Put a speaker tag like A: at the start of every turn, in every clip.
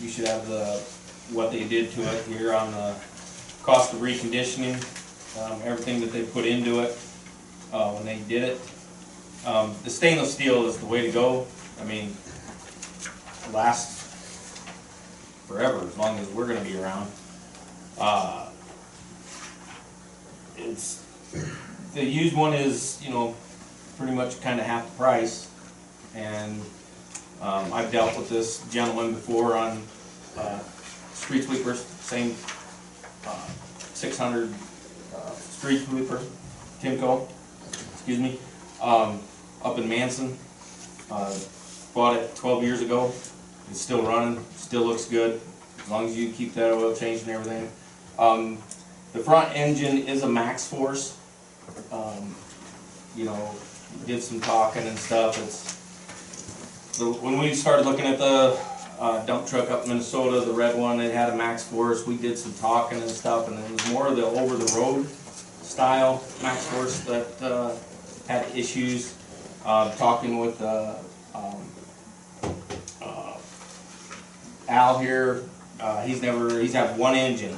A: you should have the, what they did to it here on the cost of reconditioning, um, everything that they put into it, uh, when they did it. Um, the stainless steel is the way to go, I mean, lasts forever, as long as we're gonna be around. Uh, It's, the used one is, you know, pretty much kinda half the price, and um, I've dealt with this gentleman before on, uh, street sweepers, same, uh, six hundred, uh, street sweeper, Timco, excuse me, um, up in Manson. Uh, bought it twelve years ago, it's still running, still looks good, as long as you keep that oil change and everything. Um, the front engine is a max force, um, you know, did some talking and stuff, it's, the, when we started looking at the uh, dump truck up in Minnesota, the red one, it had a max force, we did some talking and stuff, and it was more of the over-the-road style max force that, uh, had issues, uh, talking with, uh, um, uh, Al here, uh, he's never, he's had one engine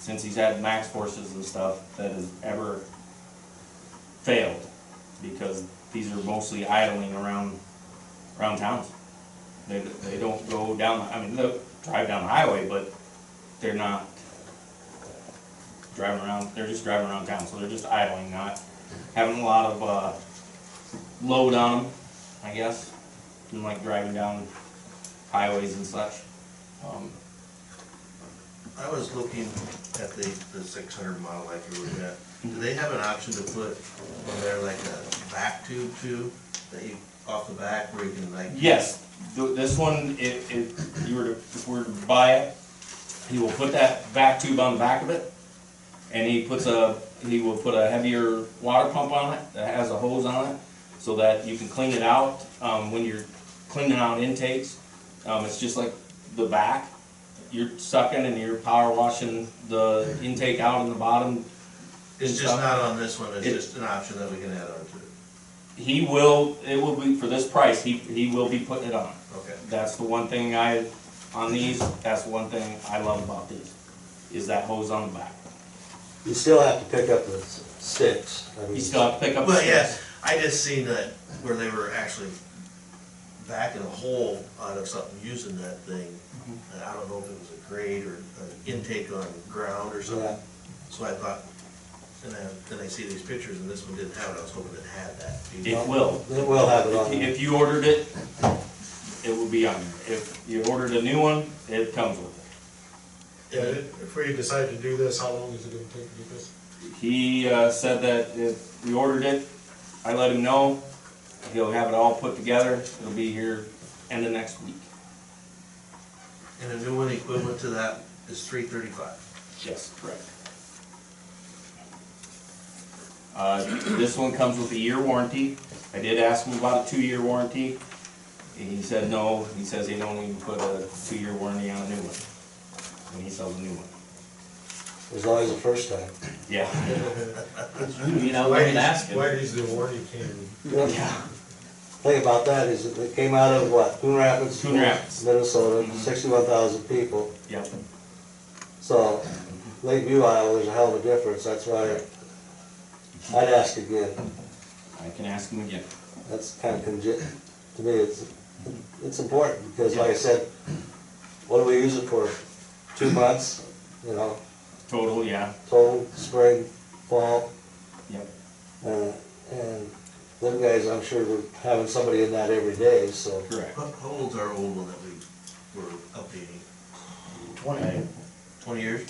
A: since he's had max forces and stuff that has ever failed, because these are mostly idling around around towns. They, they don't go down, I mean, they'll drive down the highway, but they're not driving around, they're just driving around town, so they're just idling, not having a lot of, uh, load on them, I guess. And like driving down highways and such. Um,
B: I was looking at the, the six hundred mile like you were at, do they have an option to put on there like a back tube too? That you, off the back where you can like.
A: Yes, th- this one, if, if you were to, if we were to buy it, he will put that back tube on the back of it. And he puts a, he will put a heavier water pump on it that has a hose on it, so that you can clean it out, um, when you're cleaning out intakes. Um, it's just like the back, you're sucking and you're power washing the intake out in the bottom.
B: It's just not on this one, it's
A: It-
B: just an option that we can add on to it,
A: He will, it will be, for this price, he, he will be putting it on.
B: okay.
A: That's the one thing I, on these, that's the one thing I love about these, is that hose on the back.
C: You still have to pick up the s- sticks. I mean,
A: You still have to pick up. the
B: But yes,
A: sticks.
B: I just seen that where they were actually backing a hole out of something using that thing. And I don't know if it was a grate or an intake on ground or something.
C: Yeah.
B: So I thought, and then, then I see these pictures and this one didn't have it, I was hoping it had that.
A: It will.
C: It will have it
A: If
C: on.
A: you-
C: there.
A: If you ordered it, it will be on there. If you ordered a new one, it comes with it.
D: Yeah, if we decide to do this, how long is it gonna take to do this?
A: He, uh, said that if we ordered it, I let him know, he'll have it all put together, it'll be here end of next week.
B: And a new one equivalent to that is three thirty-five.
A: Yes, correct. Uh, This one comes with a year warranty. I did ask him about a two-year warranty. and He said no, he says they don't even put a two-year warranty on a new one, when he sells a new one.
C: It was always the first time.
A: Yeah.
E: You know, we didn't ask
D: Why
E: him.
D: is the warranty came?
A: Yeah.
C: Thing about that is that it came out of what, Coon Rapids?
A: Coon Rapids.
C: Minnesota, sixty-one thousand people.
A: Yep.
C: So Lakeview, Iowa, there's a hell of a difference. That's why I'd ask again.
A: I can ask him again.
C: That's kind of conge, to me, it's, it's important because like I said, what do we use it for? Two months, you know,
A: Total, yeah,
C: total, spring, fall.
A: yep.
C: Uh, And them guys, I'm sure, were having somebody in that every day, so.
A: Correct.
B: How how old's our old one that we were updating?
E: Twenty,
B: Twenty years?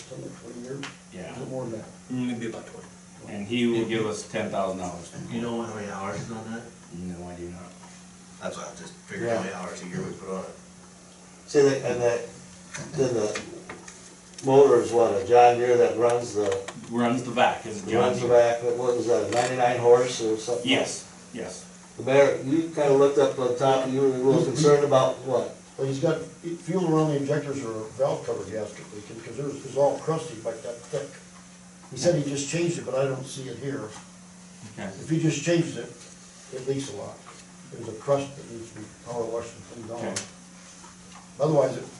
A: Yeah.
F: more than that.
E: maybe about twenty.
A: And he will give us ten thousand dollars.
B: You know how many hours is on that?
A: No, I do not.
B: That's what I just figured how many hours a year we put on it.
C: See, they- and that, then the motor is what, a John Deere that runs the,
A: Runs the back, is it John?
C: runs the back, what was that, a ninety-nine horse or something?
A: Yes, yes.
C: The mayor, you kinda looked up on top, you were a little concerned about what?
F: Well, he's got fuel around the injectors or valve cover gasket leaking, because there's, it's all crusty like that thick. He said he just changed it, but I don't see it here.
A: Okay.
F: If he just changed it, it leaks a lot. There's a crust that needs to be power washed and cleaned
A: Okay.
F: off. Otherwise, it